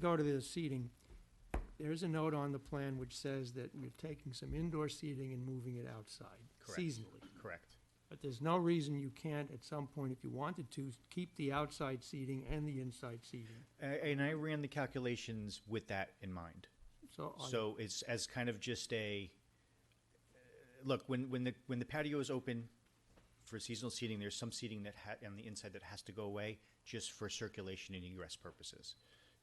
go to the seating, there's a note on the plan which says that we're taking some indoor seating and moving it outside Correct. seasonally. Correct. But there's no reason you can't, at some point, if you wanted to, keep the outside seating and the inside seating. A- And I ran the calculations with that in mind. So I- So it's as kind of just a, look, when, when the, when the patio is open for seasonal seating, there's some seating that ha, on the inside that has to go away just for circulation and egress purposes.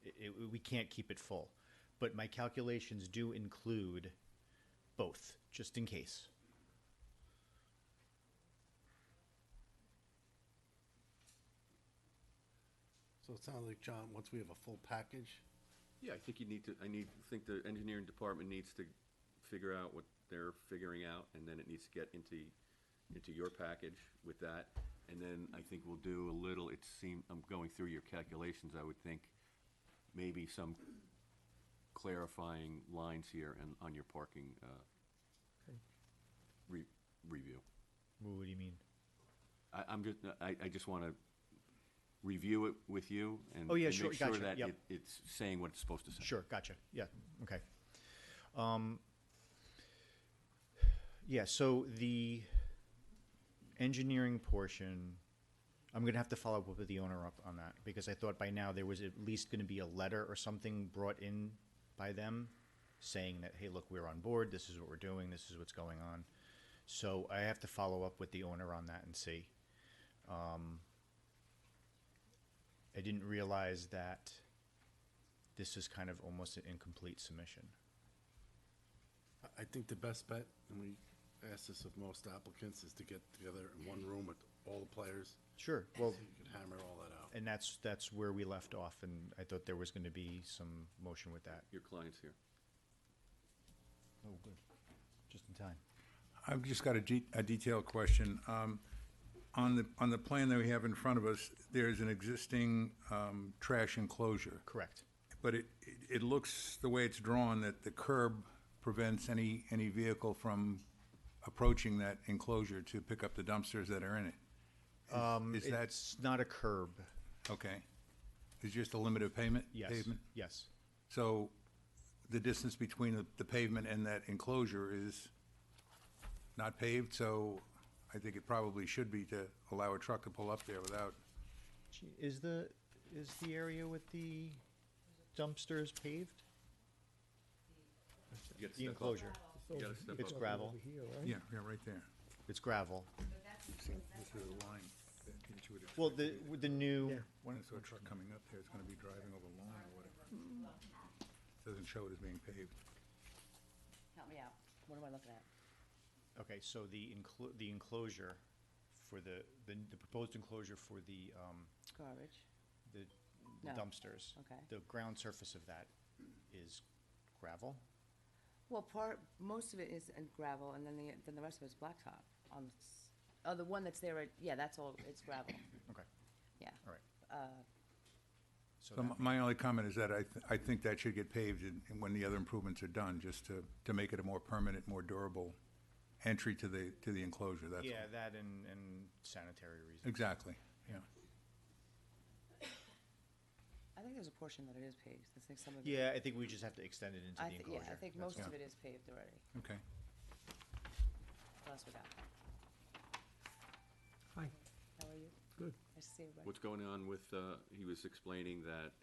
I i we can't keep it full. But my calculations do include both, just in case. So it sounds like, John, once we have a full package, Yeah, I think you need to, I need, I think the engineering department needs to figure out what they're figuring out, and then it needs to get into, into your package with that. And then I think we'll do a little, it seemed, I'm going through your calculations, I would think, maybe some clarifying lines here and on your parking, uh, Okay. re- review. What do you mean? I, I'm just, I, I just wanna review it with you and. Oh, yeah, and sure, Make sure gotcha, that yep. it, it's saying what it's supposed to say. Sure, gotcha. Yeah, okay. Um, yeah, so the engineering portion, I'm gonna have to follow up with the owner up on that, because I thought by now there was at least gonna be a letter or something brought in by them saying that, hey, look, we're on board, this is what we're doing, this is what's going on. So I have to follow up with the owner on that and see. Um, I didn't realize that this is kind of almost an incomplete submission. I- I think the best bet, and we ask this of most applicants, is to get together in one room with all the players. Sure. Well, so You can hammer all that out. and that's, that's where we left off, and I thought there was gonna be some motion with that. Your client's here. Oh, good. Just in time. I've just got a ge- a detailed question. Um, On the, on the plan that we have in front of us, there's an existing um, trash enclosure, Correct. but it, it- it looks, the way it's drawn, that the curb prevents any, any vehicle from approaching that enclosure to pick up the dumpsters that are in it. Is- Is that, Um, It's not a curb. okay, it's just a limited payment? Yes. pavement? Yes. So the distance between the- the pavement and that enclosure is not paved, so I think it probably should be to allow a truck to pull up there without, Gee, Is the, is the area with the dumpsters paved? You gotta The step up. enclosure. You gotta step It's up. gravel. yeah, yeah, right there. It's gravel. This is the line that you would expect. Well, the, with the new, Yeah. When it's a truck coming up there, it's gonna be driving over lawn or whatever. Doesn't show it as being paved. Help me out. What am I looking at? okay, so the enclo- the enclosure for the, the the proposed enclosure for the, um, Garbage. the the No. dumpsters. Okay. The ground surface of that is gravel? Well, part, most of it is in gravel, and then the, then the rest of it's blacktop on, the s- oh, the one that's there, right- yeah, that's all, it's gravel, Okay, yeah. all right. Uh, So So that- my- my only comment is that I, th- I think that should get paved in- in when the other improvements are done, just to, to make it a more permanent, more durable entry to the, to the enclosure, that's all. Yeah, that and, and sanitary reasons. Exactly, yeah. I think there's a portion that it is paved, I think some of it. Yeah, I think we just have to extend it into the I thi- enclosure. Yeah, I think That's most of fine. it is paved already, Okay. what else we got? Hi, How are you? good. Nice to see everybody. What's going on with, uh, he was explaining that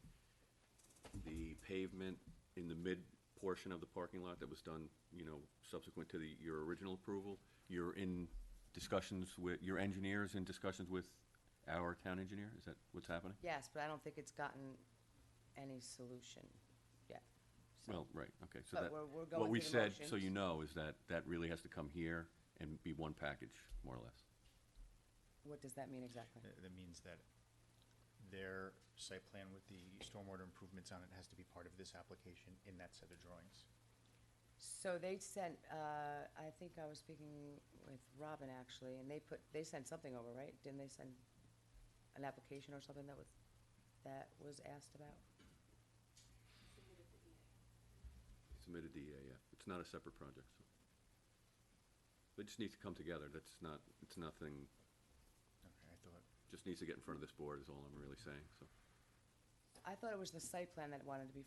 the pavement in the mid portion of the parking lot that was done, you know, subsequent to the, your original approval, you're in discussions with, your engineer's in discussions with our town engineer? Is that what's happening? Yes, but I don't think it's gotten any solution yet. so- Well, right, okay, so But that, we're- we're what going we through the said, so motions. you know, is that that really has to come here and be one package, more or less. What does that mean exactly? Th- That means that their site plan with the stormwater improvements on it has to be part of this application in that set of drawings. So they sent, uh, I think I was speaking with Robin actually, and they put, they sent something over, right? Didn't they send an application or something that was, that was asked about? Submitted the, uh, yeah, it's not a separate project, so. It just needs to come together, that's not, it's nothing, Okay, I thought, just needs to get in front of this board is all I'm really saying, so. I thought it was the site plan that wanted to be